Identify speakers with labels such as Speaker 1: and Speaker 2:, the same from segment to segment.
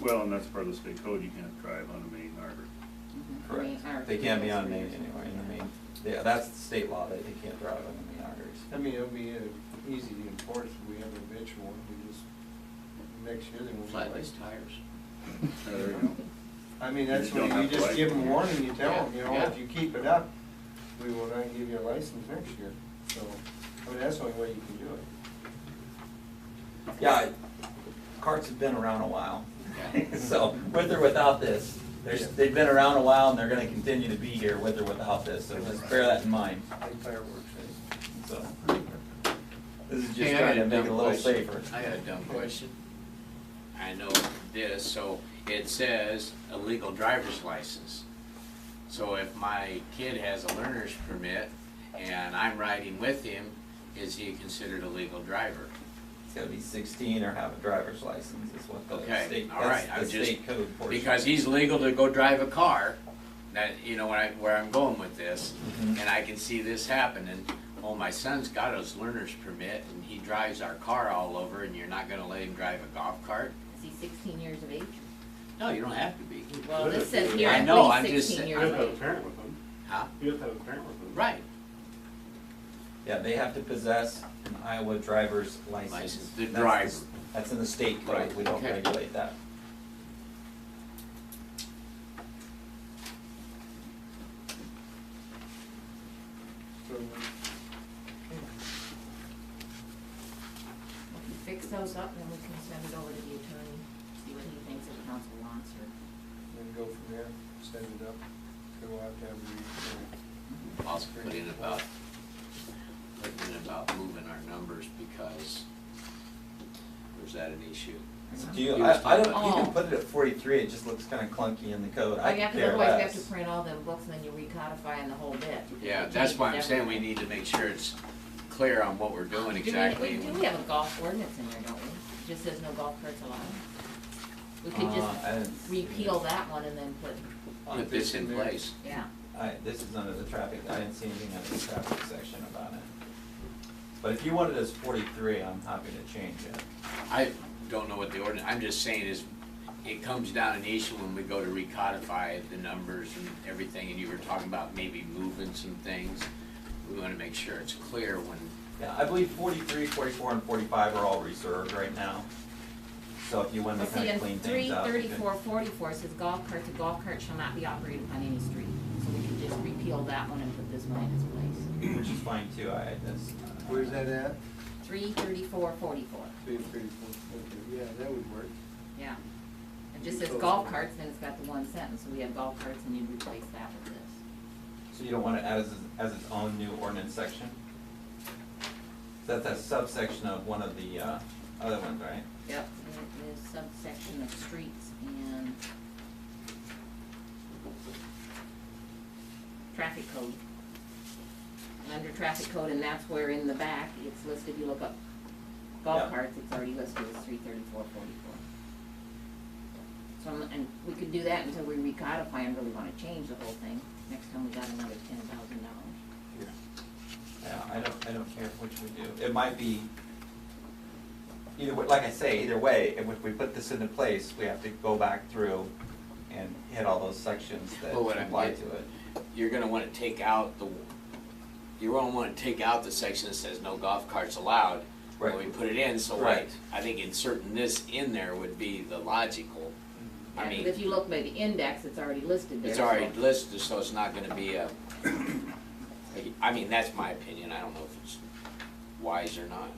Speaker 1: Well, and that's part of the state code, you can't drive on a main harbor.
Speaker 2: Mhm. I mean, our-
Speaker 3: Correct. They can't be on main anywhere, in the main, yeah, that's the state law, that they can't drive on the main arteries.
Speaker 4: I mean, it'll be uh, easy to enforce if we have a bitch one, we just, next year they won't.
Speaker 5: Flat-ice tires.
Speaker 1: Uh, There you go.
Speaker 4: I mean, that's
Speaker 1: You don't
Speaker 4: when you
Speaker 1: have to
Speaker 4: just give
Speaker 1: like-
Speaker 4: them warning, you tell them, you know,
Speaker 5: Yeah,
Speaker 4: if
Speaker 5: yeah.
Speaker 4: you keep it up, we will not give you a license next year. So, I mean, that's the only way you can do it.
Speaker 3: Yeah, carts have been around a while.
Speaker 5: Yeah.
Speaker 3: So with or without this, there's, they've been around a while and they're gonna continue to be here with or without this, so just bear that in mind,
Speaker 4: Like fireworks, eh?
Speaker 3: so. This is just
Speaker 5: Hey, I got
Speaker 3: trying to make
Speaker 5: dumb
Speaker 3: it a little
Speaker 5: question.
Speaker 3: safer.
Speaker 5: I got a dumb question. I know this, so it says a legal driver's license. So if my kid has a learner's permit and I'm riding with him, is he considered a legal driver?
Speaker 3: It's gotta be sixteen or have a driver's license is what the
Speaker 5: Okay,
Speaker 3: state,
Speaker 5: all right,
Speaker 3: that's
Speaker 5: I
Speaker 3: the
Speaker 5: was just-
Speaker 3: state code portion.
Speaker 5: Because he's legal to go drive a car, that, you know, when I, where I'm going with this,
Speaker 3: Mhm.
Speaker 5: and I can see this happening. Oh, my son's got his learner's permit and he drives our car all over and you're not gonna let him drive a golf cart?
Speaker 2: Is he sixteen years of age?
Speaker 5: No, you don't have to be,
Speaker 2: Well,
Speaker 6: Good.
Speaker 2: this says here
Speaker 5: I
Speaker 2: at
Speaker 5: know, I'm
Speaker 2: least
Speaker 5: just
Speaker 2: sixteen
Speaker 5: saying-
Speaker 6: You
Speaker 2: years
Speaker 6: have to have a
Speaker 2: of age.
Speaker 6: parent with them.
Speaker 5: huh?
Speaker 6: You have to have a parent with them.
Speaker 5: Right.
Speaker 3: Yeah, they have to possess an Iowa driver's license.
Speaker 5: License, the
Speaker 3: That's
Speaker 5: driver.
Speaker 3: That's in the state code,
Speaker 5: Right,
Speaker 3: we don't
Speaker 5: okay.
Speaker 3: regulate that.
Speaker 4: So,
Speaker 2: We can Fix those up and then we can send it over to the attorney, see what he thinks the council wants or.
Speaker 4: then go from there, send it up, so we'll have to have a,
Speaker 5: Also put in about, put in about moving our numbers because was that an issue?
Speaker 3: So Do you,
Speaker 5: He
Speaker 3: I,
Speaker 5: was
Speaker 3: I
Speaker 5: talking Oh.
Speaker 3: don't, you can
Speaker 2: about-
Speaker 3: put it at forty-three, it just looks kinda clunky in the code, I
Speaker 2: Oh, yeah, 'cause
Speaker 3: care
Speaker 2: otherwise you have
Speaker 3: less.
Speaker 2: to print all them books and then you recodify in the whole bit.
Speaker 5: Yeah,
Speaker 2: It
Speaker 5: that's why I'm
Speaker 2: changes
Speaker 5: saying we
Speaker 2: everything.
Speaker 5: need to make sure it's clear on what we're doing
Speaker 2: Do we-
Speaker 5: exactly.
Speaker 2: We do have a golf ordinance in there, don't we? It Just says no golf carts allowed. We could
Speaker 3: Uh, I didn't
Speaker 2: just
Speaker 3: see it.
Speaker 2: repeal that one and then put,
Speaker 5: Put this in place.
Speaker 2: yeah.
Speaker 3: I, this is under the traffic, I didn't see anything under the traffic section about it. But if you want it as forty-three, I'm happy to change it.
Speaker 5: I don't know what the ordinance, I'm just saying is, it comes down an issue when we go to recodify the numbers and everything, and you were talking about maybe moving some things. We wanna make sure it's clear when,
Speaker 3: Yeah, I believe 43, 44, and forty-five are all reserved right now. So if you wanted
Speaker 2: Well,
Speaker 3: to
Speaker 2: see,
Speaker 3: kinda
Speaker 2: in
Speaker 3: clean
Speaker 2: three
Speaker 3: things up. you could-
Speaker 2: thirty-four forty-four says golf carts, a golf cart shall not be operated on any street. So we could just repeal that one and put this one in its place.
Speaker 3: Which is fine too, I, that's.
Speaker 4: where's that at?
Speaker 2: Three thirty-four forty-four,
Speaker 4: Three, three, four, okay, yeah, that would work.
Speaker 2: yeah. It just says golf carts, then it's got the one sentence, so we have golf carts and you replace that with this.
Speaker 3: So you don't want it as, as its own new ordinance section? That's a subsection of one of the, uh, other ones, right?
Speaker 2: Yep. It is subsection of streets and traffic code. And Under traffic code, and that's where in the back, it's listed, you look up
Speaker 3: Yeah.
Speaker 2: golf carts, it's already listed as three thirty-four forty-four. So, I'm- and we could do that until we recodify and really wanna change the whole thing, next time we got another ten thousand dollars.
Speaker 3: Yeah, I don't, I don't care which we do. It might be, either, way- like I say, either way, if we put this into place, we have to go back through and hit all those sections that
Speaker 5: Well, what I'm
Speaker 3: apply to
Speaker 5: getting-
Speaker 3: it.
Speaker 5: you're gonna wanna take out the, you're gonna wanna take out the section that says no golf carts allowed. When we
Speaker 3: Right.
Speaker 5: put it in, so like,
Speaker 3: Right.
Speaker 5: I think inserting this in there would be the logical. I mean.
Speaker 2: Because if you look by the index, it's already listed there.
Speaker 5: It's
Speaker 2: so-
Speaker 5: already listed, so it's not gonna be a, I mean, that's my opinion, I don't know if it's wise or not.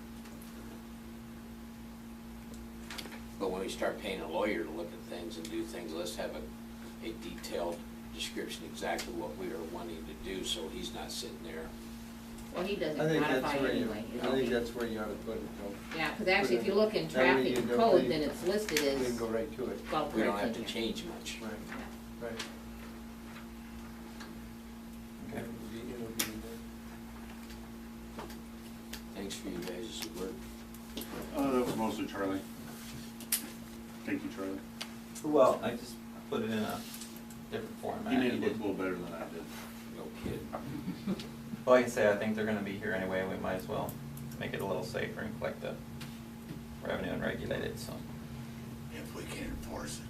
Speaker 5: But when we start paying a lawyer to look at things and do things, let's have a, a detailed description exactly what we are wanting to do, so he's not sitting there.
Speaker 2: Well, he doesn't
Speaker 4: I think
Speaker 2: codify
Speaker 4: that's
Speaker 2: it
Speaker 4: where you,
Speaker 2: anyway.
Speaker 4: I
Speaker 2: It'll
Speaker 4: think
Speaker 2: be-
Speaker 4: that's where you ought to put it, though.
Speaker 2: Yeah, because actually, if you look in
Speaker 4: That way
Speaker 2: traffic
Speaker 4: you don't
Speaker 2: code,
Speaker 4: need-
Speaker 2: then it's listed
Speaker 4: You can
Speaker 2: as
Speaker 4: go right to it.
Speaker 2: golf
Speaker 5: We don't
Speaker 2: carts
Speaker 5: have to
Speaker 2: in here.
Speaker 5: change much.
Speaker 4: Right,
Speaker 2: Yeah.
Speaker 4: right.
Speaker 3: Okay.
Speaker 4: It'll be- it'll be in there.
Speaker 5: Thanks for you guys' work.
Speaker 1: Uh, that was mostly Charlie. Thank you, Charlie.
Speaker 3: Well, I just put it in a different format.
Speaker 1: He made
Speaker 3: You
Speaker 1: it look a
Speaker 3: did-
Speaker 1: little better than I did.
Speaker 5: No kid.
Speaker 3: Well, Like I say, I think they're gonna be here anyway, we might as well make it a little safer and collect the revenue and regulate it, so.
Speaker 1: If we can enforce it.